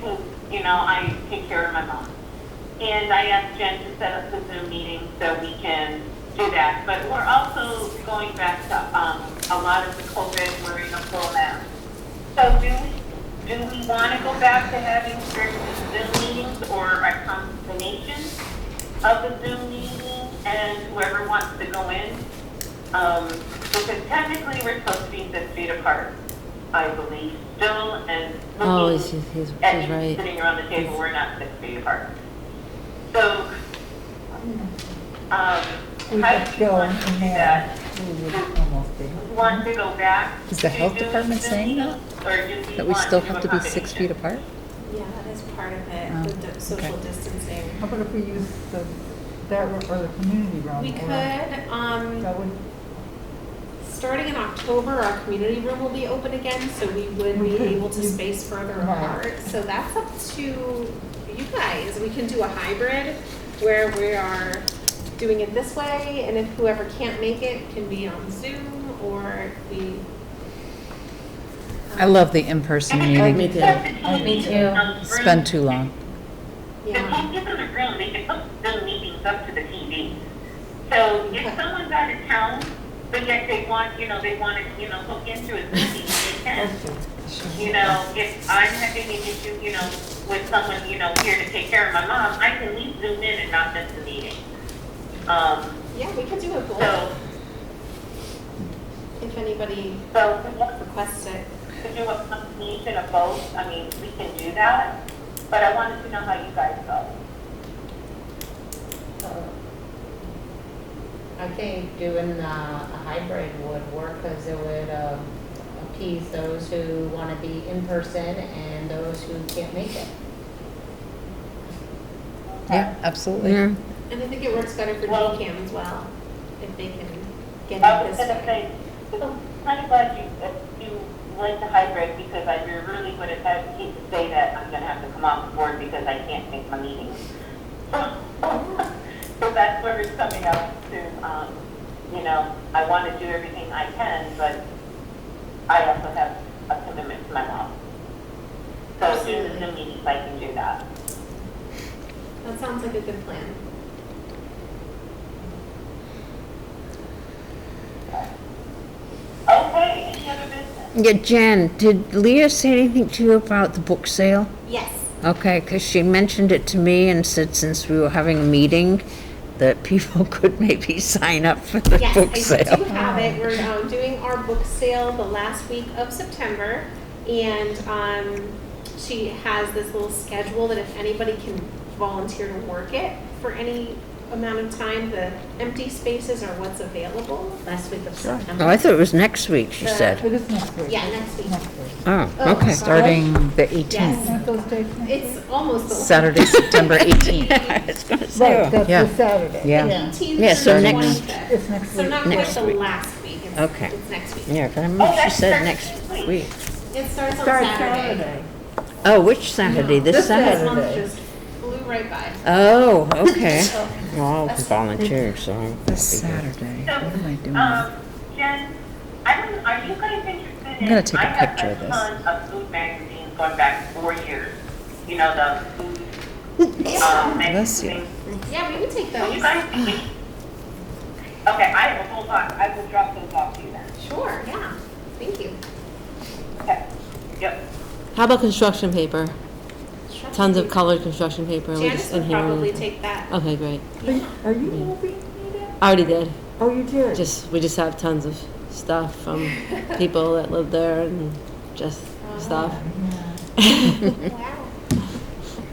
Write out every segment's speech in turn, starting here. know, I take care of my mom. And I asked Jen to set up the Zoom meeting so we can do that. But we're also going back to, um, a lot of the COVID wearing a full mask. So do we, do we want to go back to having certain Zoom meetings or a combination of the Zoom meeting and whoever wants to go in? Um, because technically we're supposed to be six feet apart, I believe, still, and Oh, looking he's, he's, he's at you right. sitting around the table, we're not six feet apart. So, um, We how could do you go want to in do there. that? We would almost be. Do you want to go back? Is the to health doing department Zoom saying that? meetings, or do you That we want still to have do to a be six feet combination? apart? Yeah, that is part of Oh, it, the di- social okay. distancing. How about if we use the, that room or the community Oh, room? We or- could, um, That would, starting in October, our community room will be open again, so we would We be could able to use- space further Right. apart. So that's up to you guys. We can do a hybrid where we are doing it this way, and if whoever can't make it can be on Zoom or we. I love the in-person meeting. Me too. Spend too long. The Yeah, team isn't a room, they can hook Zoom meetings up to the TV. So if someone's out of town, but yet they want, you know, they want to, you know, hook into a Zoom meeting, they can. You know, if I'm having an issue, you know, with someone, you know, here to take care of my mom, I can leave Zoom in and not miss the meeting. Um, yeah, we could do a goal so, if anybody so if we want requests it. to do a combination of both, I mean, we can do that, but I wanted to know how you guys go. I think doing uh, a hybrid would work because it would um, appease those who want to be in person and those who can't make it. Yeah, absolutely. Yeah, And I think it works better for Well- oh, DCAM as well, if they can get I it was this gonna way. say, I'm kind of glad you, that you went to hybrid because I really would have had to keep- say that I'm gonna have to come off the board because I can't make my meetings. So that's where it's coming up to, um, you know, I want to do everything I can, but I also have a commitment to my mom. So through the Zoom meetings, I can do that. That sounds like a good plan. Okay, any other business? Yeah, Jen, did Leah say anything to you about the book sale? Yes. Okay, because she mentioned it to me and said since we were having a meeting, that people could maybe sign up for the Yes, book I do sale. have it. We're um, doing our book sale the last week of September, and um, she has this little schedule that if anybody can volunteer to work it for any amount of time, the empty spaces are what's available last week of Oh, I September. thought it was next week, she The- said. it is next week. Yeah, next week. Next week. Oh, Oh, okay. sorry. Starting the 18th, Yes. Aren't those dates next week? It's almost the Saturday, September 18th. I was gonna Right, say, oh. that's Yeah. the Saturday. Yeah. Eighteenth Yeah, so through the next- twenty-fifth. It's next So week. not quite Next the week. last week. It's, Okay. It's next week. yeah, 'cause I remember she that's said next next week. week. It starts on Start Saturday. Oh, which Saturday? This This This Saturday? month just flew right by. Oh, okay. So Well, I'll volunteer, so. I'll be This here. Saturday, what am I doing? Um, Jen, I'm, are you guys interested in? I'm gonna take a I have picture of this. ton of food magazines going back four years, you know, the food, um, Bless you. magazines. yeah, we would take Will you those. guys be? Okay, I have a whole box, I will drop those off to you then, Sure. Yeah. Thank you. okay? Yep. how about construction paper? Sure. Tons of colored construction paper. and we Janice just would inherit probably it. take that. Okay, great. Are you- Are you moving, Nita? I Already did. Oh, you did? Just, we just have tons of stuff from people that live there and just stuff. wow. Congrats.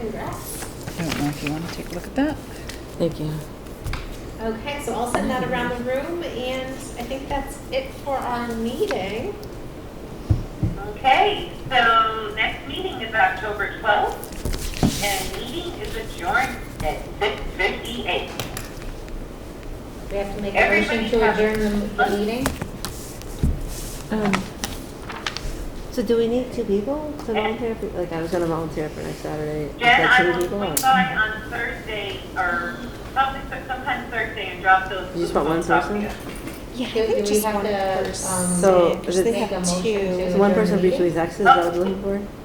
I don't know if you want to take a look at that? Thank you. Okay, so I'll send that around the room, and I think that's it for our meeting. Okay, so next meeting is October 12th, and meeting is adjourned at 6:58. We have to make a Everybody motion to have- adjourn the- the meeting. So do we need two people to volunteer Like, I was gonna volunteer for next Saturday. Jen, I will swing by on Thursday or something, but sometime Thursday and drop those. You just want one books off to person? you. Yeah, Do do we have to um, So, is it- make a motion to So adjourn one the person meeting? mutually is access, is that what we're looking for?